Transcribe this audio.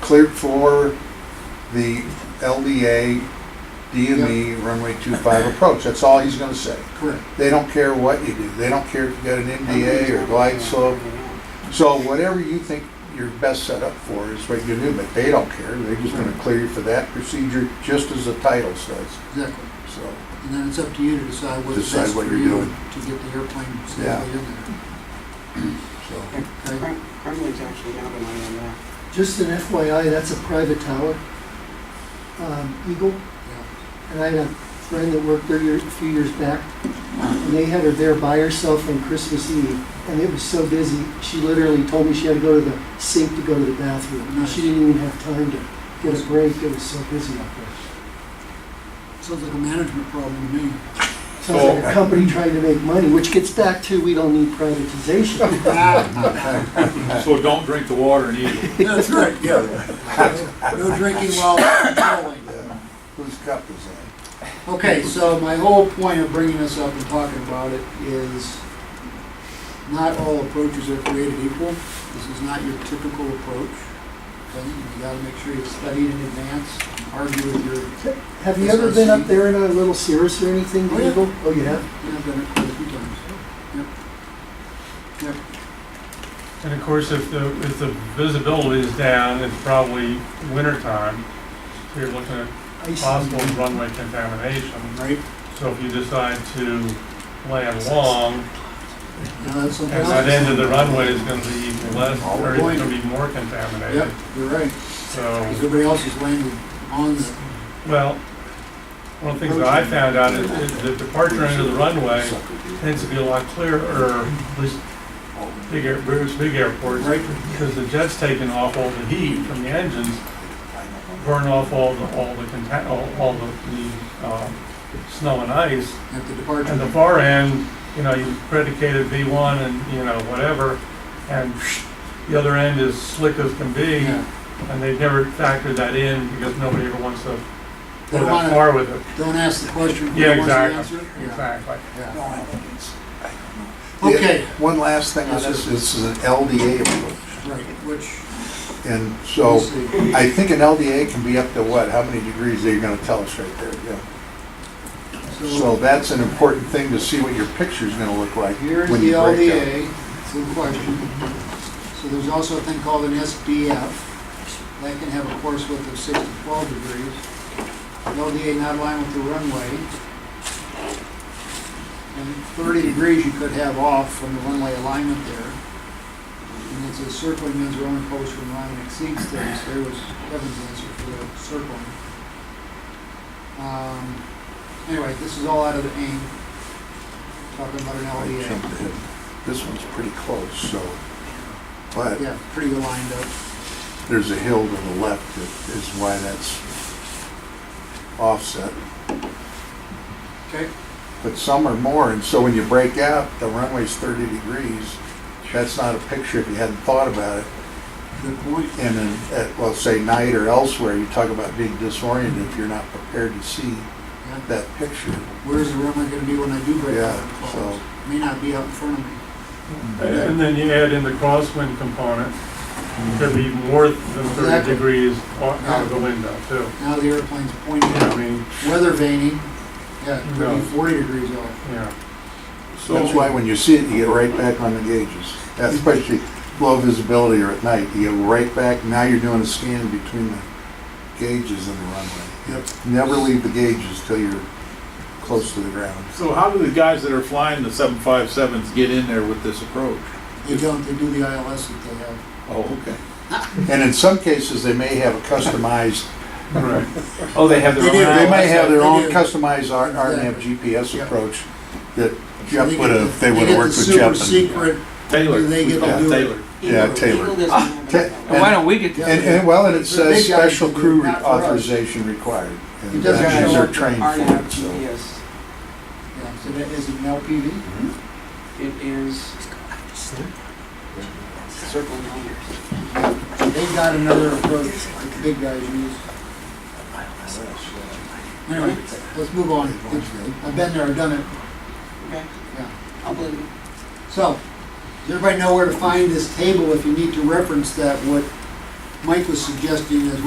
cleared for the LDA DME E, runway 25 approach. That's all he's gonna say. Correct. They don't care what you do. They don't care if you got an MDA or glide slope. So whatever you think you're best set up for is what you do, but they don't care. They're just gonna clear you for that procedure, just as the title says, Exactly. so. And then it's up to you to decide what's Decide best for what you're you doing. to get the airplane safely in there. so. Okay? Crum- Crumlin's actually got an eye on that. Just an FYI, that's a private tower, um, Eagle. And I had a friend that worked there year- a few years back, and they had her there by herself on Christmas Eve, and it was so busy, she literally told me she had to go to the sink to go to the bathroom. Nice. She didn't even have time to get a break, it was so busy out there. Yeah. Sounds like a management problem to me. Sounds like a company trying to make money, which gets back to, we don't need privatization. So don't drink the water in Eagle. Yeah, That's right, yeah. No drinking while patrolling. Whose cup is that? Okay, so my whole point of bringing this up and talking about it is not all approaches are created equal. This is not your typical approach. Okay, you gotta make sure you've studied in advance, argue with your, Have you ever been up there in a little Cirrus or anything, Oh, yeah. Eagle? Oh, you have? yeah, I've done it quite a few times. Yep. Yep. And of course, if the, if the visibility is down, it's probably winter time, so you're looking at Ice. possible runway contamination. Right. So if you decide to land long, Now, that's something at else. that end of the runway is gonna be less, or it's Point. gonna be more contaminated. Yep, you're right, So, because everybody else is landing on the, well, one of the things that I found out is is the departure end of the runway tends to be a lot clearer, at least big, air- big airports, right, because the jet's taking off all the heat from the engines, burn off all the, all the conta, all, all the, the, um, snow and ice. at the departure. And the far end, you know, you predicated V one and, you know, whatever, and the other end is slick as can be, Yeah. and they've never factored that in because nobody ever wants to They go wanna- that far with it. Don't ask the question. who Yeah, wants the exactly, answer. Yeah, exactly. yeah. No, I think it's, I don't know. Okay, One last thing on this, this is an LDA approach, right, which, and so we'll see. I think an LDA can be up to what, how many degrees are you gonna tell us right there, yeah. So So that's an important thing to see what your picture's gonna look like here's the when you break down. LDA, it's a question. So there's also a thing called an SDF. That can have a course width of six to twelve degrees. LDA not aligned with the runway. And thirty degrees you could have off from the runway alignment there. And it's a circling means your only post when line exceeds thirty, so there was Kevin's answer for the circling. Um, Anyway, this is all out of the aim, talking about an E I LDA. jumped ahead. This one's pretty close, so, but Yeah, pretty well lined up. there's a hill to the left that is why that's offset. Okay. but some are more. And so when you break out, the runway's 30 degrees. That's not a picture if you hadn't thought about it. Good point. And then, at, well, say night or elsewhere, you talk about being disoriented if you're not prepared to see Yeah. that picture. Where's the runway gonna be when I do break out? Yeah, so- May not be out in front of me. And then you add in the crosswind component, could be more than thirty Exactly. degrees out out of the window too. Now the airplane's pointing I out. mean, Weather veining, yeah, it could No. be forty degrees off. yeah. So, That's why when you see it, you get right back on the gauges. That's Especially low visibility or at night, you get right back. Now you're doing a scan between the gauges and the runway. Never leave the gauges till you're close to the ground. so how do the guys that are flying the seven five sevens get in there with this approach? They don't, they do the ILS that they have. Oh, okay. And in some cases, they may have a customized Right. Oh, they have They their do, own. They may have their own They do. customized R- RNAV Yeah. GPS approach that So they Jeff would get the- have, they they would get have the worked with Jeff. Super and- secret, Taylor. Do they get to Yeah, do it? Taylor. Yeah, Eagle- Taylor. Uh, Eagle doesn't Ta- have that. and- Why don't we get, Yeah. And, and well, and it The big says guys special do, crew re- not for us. authorization required. It And doesn't that show means they're up trained for it, so. Yes, yeah, so that is an LPV. it is circle liners. They got another approach that the big guys use. Anyway, let's move on. I've been there, I've done it. Okay. Yeah. I'll believe you. So, does everybody know where to find this table if you need to reference that, what Mike was suggesting as